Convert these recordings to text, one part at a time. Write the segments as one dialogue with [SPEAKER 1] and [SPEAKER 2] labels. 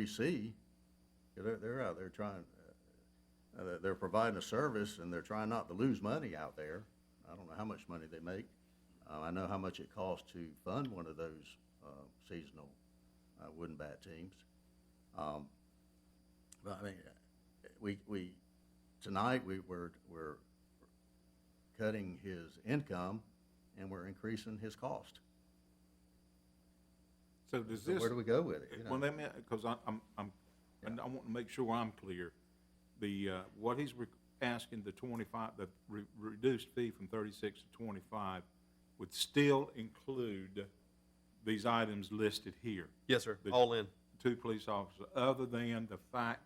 [SPEAKER 1] leasee, they're, they're out there trying, uh, they're, they're providing a service and they're trying not to lose money out there. I don't know how much money they make. Uh, I know how much it costs to fund one of those, uh, seasonal, uh, wooden bat teams. Um, but I mean, uh, we, we, tonight, we were, we're cutting his income and we're increasing his cost.
[SPEAKER 2] So does
[SPEAKER 1] So
[SPEAKER 2] this,
[SPEAKER 1] where do we go with it? you know?
[SPEAKER 2] well, let me, because I'm, I'm, and I want to make sure I'm clear. The, uh, what he's re- asking, the twenty-five, the re- reduced fee from thirty-six to twenty-five would still include these items listed here.
[SPEAKER 3] Yes, sir.
[SPEAKER 2] The-
[SPEAKER 3] All in.
[SPEAKER 2] Two police officers, other than the fact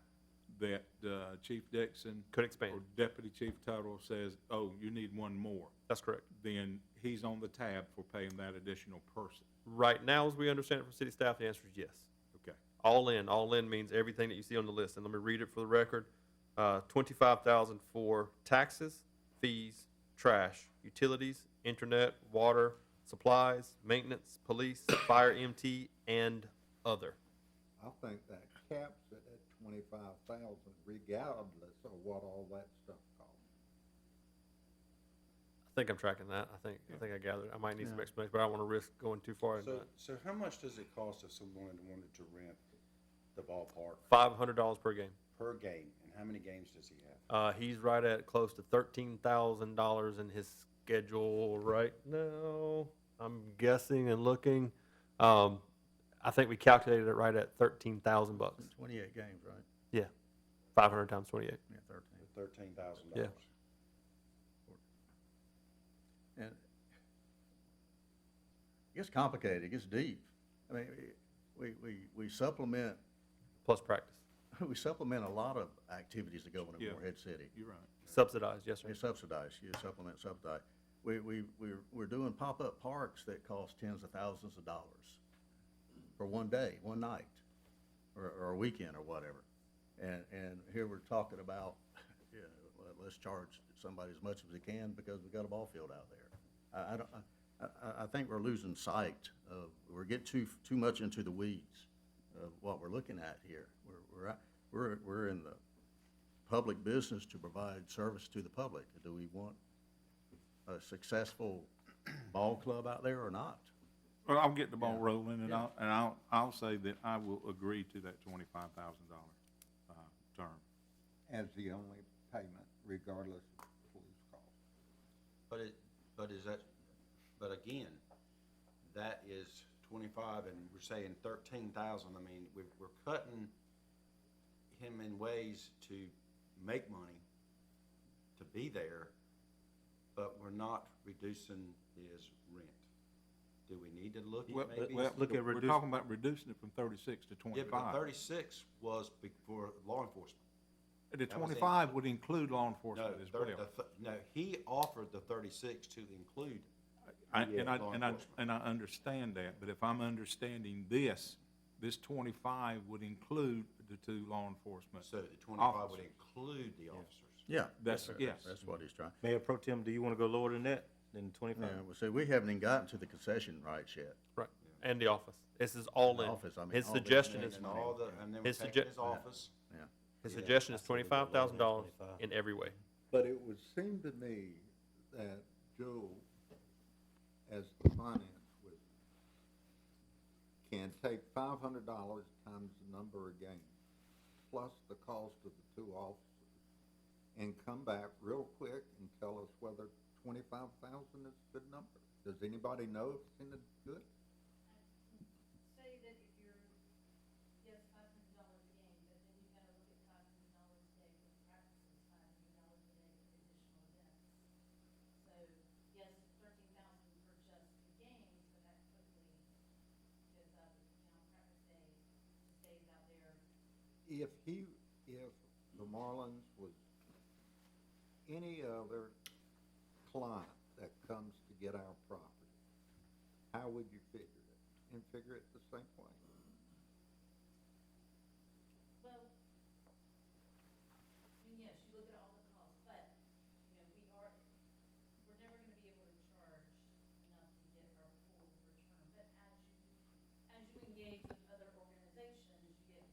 [SPEAKER 2] that, uh, Chief Dixon
[SPEAKER 3] Could
[SPEAKER 2] or
[SPEAKER 3] expand.
[SPEAKER 2] Deputy Chief Tuttle says, oh, you need one more,
[SPEAKER 3] That's correct.
[SPEAKER 2] then he's on the tab for paying that additional person.
[SPEAKER 3] Right now, as we understand it from city staff, the answer is yes.
[SPEAKER 2] Okay.
[SPEAKER 3] All in, all in means everything that you see on the list. And let me read it for the record. Uh, twenty-five thousand for taxes, fees, trash, utilities, internet, water, supplies, maintenance, police, fire MT, and other.
[SPEAKER 4] I think that caps it at twenty-five thousand regardless of what all that stuff costs.
[SPEAKER 3] I think I'm tracking that. I think, I think I gathered. I might need some explanation, but I don't want to risk going too far in
[SPEAKER 5] So,
[SPEAKER 3] that.
[SPEAKER 5] so how much does it cost if someone wanted to rent the ballpark
[SPEAKER 3] Five hundred dollars per game.
[SPEAKER 5] per game, and how many games does he have?
[SPEAKER 3] Uh, he's right at close to thirteen thousand dollars in his schedule right now. I'm guessing and looking. Um, I think we calculated it right at thirteen thousand bucks.
[SPEAKER 1] Twenty-eight games, right?
[SPEAKER 3] Yeah, five hundred times twenty-eight.
[SPEAKER 1] Yeah, thirteen.
[SPEAKER 5] Thirteen thousand
[SPEAKER 3] Yeah.
[SPEAKER 5] dollars.
[SPEAKER 1] And it gets complicated, it gets deep. I mean, we, we, we supplement,
[SPEAKER 3] Plus practice,
[SPEAKER 1] we supplement a lot of activities that go on in
[SPEAKER 2] Yeah.
[SPEAKER 1] Morehead City.
[SPEAKER 2] You're right.
[SPEAKER 3] subsidized. Yes, sir.
[SPEAKER 1] It's subsidized, you supplement subsidized. We, we, we're, we're doing pop-up parks that cost tens of thousands of dollars for one day, one night, or, or a weekend or whatever. And, and here we're talking about, you know, let- let's charge somebody as much as we can because we've got a ball field out there. I, I don't, I, I, I think we're losing sight of, we're getting too, too much into the weeds of what we're looking at here. We're, we're, at- we're, we're in the public business to provide service to the public. Do we want a successful ball club out there or not?
[SPEAKER 2] Well, I'll get the ball rolling, and I'll, and I'll, I'll say that I will agree to that twenty-five thousand dollar, uh, term.
[SPEAKER 4] as the only payment regardless of police cost.
[SPEAKER 5] But it, but is that, but again, that is twenty-five and we're saying thirteen thousand, I mean, we're, we're cutting him in ways to make money, to be there, but we're not reducing his rent. Do we need to look
[SPEAKER 2] Well,
[SPEAKER 5] at maybe?
[SPEAKER 2] well,
[SPEAKER 3] look at
[SPEAKER 2] We're
[SPEAKER 3] reduce-
[SPEAKER 2] talking about reducing it from thirty-six to
[SPEAKER 5] Yeah, but the
[SPEAKER 2] twenty-five.
[SPEAKER 5] thirty-six was before law enforcement.
[SPEAKER 2] The
[SPEAKER 5] that was it.
[SPEAKER 2] twenty-five would include law
[SPEAKER 5] No,
[SPEAKER 2] enforcement as
[SPEAKER 5] thirty,
[SPEAKER 2] well.
[SPEAKER 5] the th- no, he offered the thirty-six to include
[SPEAKER 2] I- And I,
[SPEAKER 5] law
[SPEAKER 2] and I,
[SPEAKER 5] enforcement.
[SPEAKER 2] and I understand that, but if I'm understanding this, this twenty-five would include the two law enforcement.
[SPEAKER 5] So the twenty-five would
[SPEAKER 2] Officers.
[SPEAKER 5] include the officers.
[SPEAKER 1] Yeah.
[SPEAKER 2] That's- yes.
[SPEAKER 1] That's what he's trying.
[SPEAKER 6] Mayor Pro Tem, do you want to go lower than that, than
[SPEAKER 1] Yeah,
[SPEAKER 6] twenty-five?
[SPEAKER 1] well, see, we haven't even gotten to the concession rights yet.
[SPEAKER 3] Right, and the office. This is all
[SPEAKER 1] The
[SPEAKER 3] in.
[SPEAKER 1] office, I mean,
[SPEAKER 3] His
[SPEAKER 1] all this
[SPEAKER 3] suggestion
[SPEAKER 1] means
[SPEAKER 3] is
[SPEAKER 5] And all the, and then we
[SPEAKER 3] His
[SPEAKER 5] take
[SPEAKER 3] sugge-
[SPEAKER 5] his office.
[SPEAKER 1] Yeah.
[SPEAKER 3] his
[SPEAKER 5] Yeah,
[SPEAKER 3] suggestion is
[SPEAKER 6] that's a little bit lower
[SPEAKER 3] twenty-five
[SPEAKER 6] than
[SPEAKER 3] thousand dollars
[SPEAKER 6] 25.
[SPEAKER 3] in every way.
[SPEAKER 4] But it would seem to me that Joe, as the finance wizard, can take five hundred dollars times the number of games, plus the cost of the two officers, and come back real quick and tell us whether twenty-five thousand is a good number. Does anybody know if it's in the good?
[SPEAKER 7] say that if you're, yes, five hundred dollars a game, but then you've gotta look at five hundred dollars a day for practices, five hundred dollars a day for additional events. So, yes, thirteen thousand for just the games, but that quickly goes up, you know, practice day, stays out there.
[SPEAKER 4] if he, if the Marlins was any other client that comes to get our property, how would you figure it? And figure it the same way.